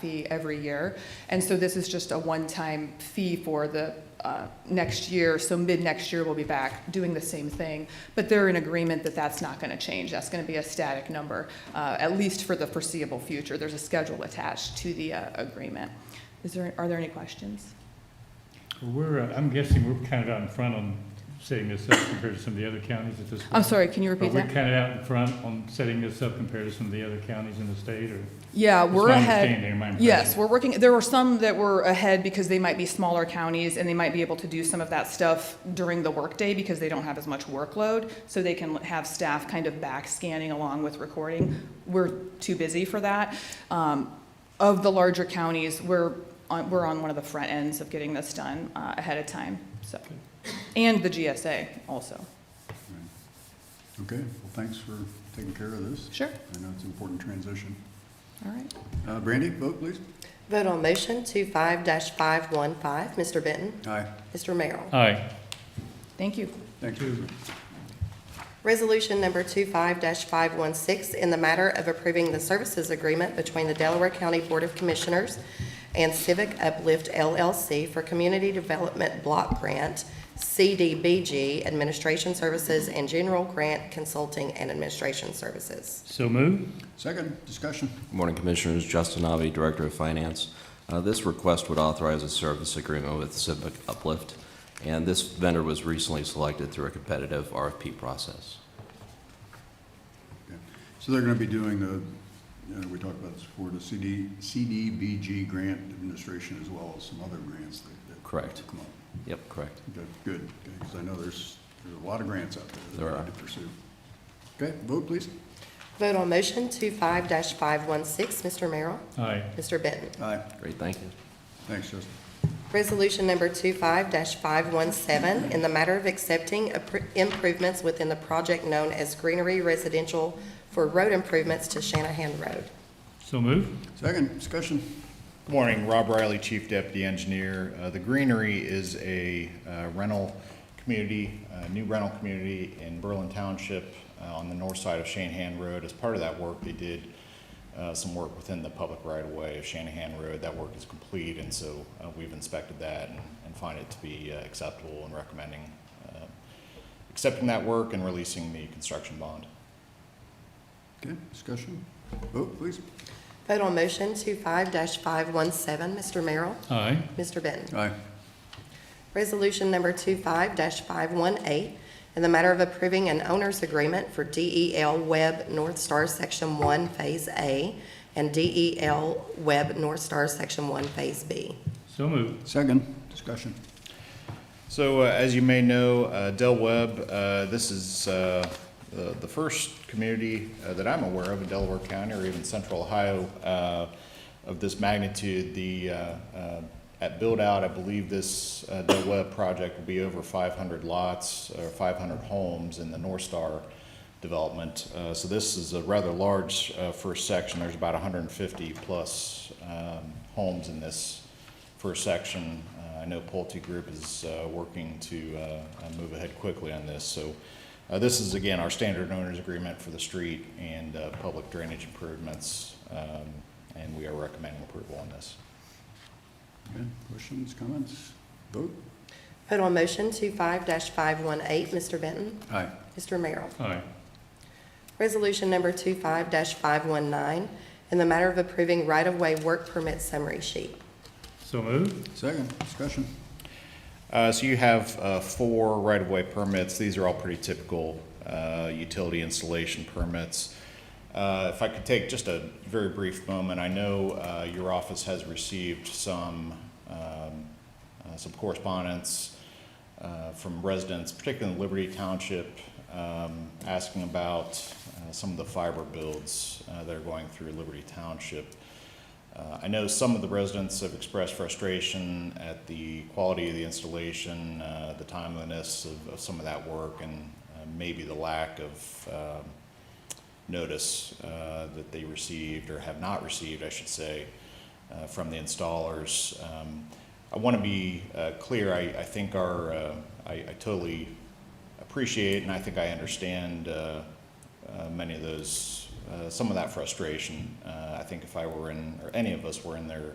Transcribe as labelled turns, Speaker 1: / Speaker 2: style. Speaker 1: fee every year. And so this is just a one-time fee for the uh, next year. So mid-next year, we'll be back doing the same thing. But they're in agreement that that's not going to change. That's going to be a static number, uh, at least for the foreseeable future. There's a schedule attached to the uh, agreement. Is there, are there any questions?
Speaker 2: We're, uh, I'm guessing we're kind of out in front on setting this up compared to some of the other counties at this point.
Speaker 1: I'm sorry, can you
Speaker 2: But
Speaker 1: repeat
Speaker 2: we're
Speaker 1: that?
Speaker 2: kind of out in front on setting this up compared to some of the other counties in the state, or?
Speaker 1: Yeah,
Speaker 2: That's
Speaker 1: we're
Speaker 2: my
Speaker 1: ahead.
Speaker 2: understanding, my impression.
Speaker 1: Yes, we're working, there were some that were ahead because they might be smaller counties and they might be able to do some of that stuff during the workday because they don't have as much workload. So they can have staff kind of back scanning along with recording. We're too busy for that. Um, Of the larger counties, we're on, we're on one of the front ends of getting this done uh, ahead of time, so. And the GSA also.
Speaker 3: Okay, well, thanks for taking care of this.
Speaker 1: Sure,
Speaker 3: I know it's an important transition.
Speaker 1: all right.
Speaker 3: Uh, Brandy, vote please.
Speaker 4: Vote on motion 25-515. Mr. Benton?
Speaker 3: Aye.
Speaker 4: Mr. Merrill?
Speaker 2: Aye,
Speaker 1: Thank you.
Speaker 3: Thank you.
Speaker 4: Resolution number 25-516, in the matter of approving the services agreement between the Delaware County Board of Commissioners and Civic Uplift LLC for Community Development Block Grant, CDBG Administration Services and General Grant Consulting and Administration Services.
Speaker 2: so move.
Speaker 3: Second, discussion.
Speaker 5: Good Morning, Commissioners. Justin Navi, Director of Finance. Uh, This request would authorize a service agreement with Civic Uplift, and this vendor was recently selected through a competitive RFP process.
Speaker 3: Okay. So they're gonna be doing the, you know, we talked about this before, the CD, CDBG grant administration as well as some other grants that. that
Speaker 5: Correct.
Speaker 3: Come up.
Speaker 5: Yep, correct.
Speaker 3: Okay, good, because I know there's, there's a lot of grants out there. that
Speaker 5: There
Speaker 3: we
Speaker 5: are.
Speaker 3: need To pursue. Okay, vote please.
Speaker 4: Vote on motion 25-516. Mr. Merrill?
Speaker 2: Aye,
Speaker 4: Mr. Benton?
Speaker 3: Aye.
Speaker 5: Great, thank you.
Speaker 3: Thanks, Justin.
Speaker 4: Resolution number 25-517, in the matter of accepting appro- improvements within the project known as Greenery Residential for road improvements to Shanahan Road.
Speaker 2: so move.
Speaker 3: Second, discussion.
Speaker 6: Good Morning, Rob Riley, Chief Deputy Engineer. Uh, The Greenery is a uh, rental community, a new rental community in Berlin Township uh, on the north side of Shanahan Road. As part of that work, they did uh, some work within the public right-of-way of Shanahan Road. That work is complete, and so uh, we've inspected that and- and find it to be uh, acceptable and recommending uh, accepting that work and releasing the construction bond.
Speaker 3: Okay, discussion. Vote please.
Speaker 4: Vote on motion 25-517, Mr. Merrill?
Speaker 2: Aye,
Speaker 4: Mr. Benton?
Speaker 3: Aye.
Speaker 4: Resolution number 25-518, in the matter of approving an owner's agreement for DEL Web North Star Section 1 Phase A and DEL Web North Star Section 1 Phase B.
Speaker 2: so move.
Speaker 3: Second, discussion.
Speaker 6: So, uh, as you may know, uh, Del Webb, uh, this is uh, the the first community uh, that I'm aware of in Delaware County or even Central Ohio uh, of this magnitude. The, uh, uh, at build-out, I believe this uh, Del Webb project will be over 500 lots or 500 homes in the North Star development. Uh, So this is a rather large uh, first section. There's about 150-plus um, homes in this first section. Uh, I know Pulte Group is uh, working to uh, uh, move ahead quickly on this. So uh, this is, again, our standard owner's agreement for the street and uh, public drainage improvements, um, and we are recommending approval on this.
Speaker 3: Okay, questions, comments? Vote?
Speaker 4: Vote on motion 25-518, Mr. Benton.
Speaker 3: Aye.
Speaker 4: Mr. Merrill.
Speaker 2: Aye,
Speaker 4: Resolution number 25-519, in the matter of approving right-of-way work permit summary sheet.
Speaker 2: so move.
Speaker 3: Second, discussion.
Speaker 6: Uh, So you have uh, four right-of-way permits. These are all pretty typical uh, utility installation permits. Uh, If I could take just a very brief moment, I know uh, your office has received some, um, uh, some correspondence uh, from residents, particularly in Liberty Township, um, asking about uh, some of the fiber builds uh, that are going through Liberty Township. Uh, I know some of the residents have expressed frustration at the quality of the installation, uh, the timeliness of, of some of that work, and uh, maybe the lack of um, notice uh, that they received or have not received, I should say, uh, from the installers. Um, I want to be uh, clear. I, I think our uh, I, I totally appreciate and I think I understand uh, uh, many of those uh, some of that frustration. Uh, I think if I were in, or any of us were in their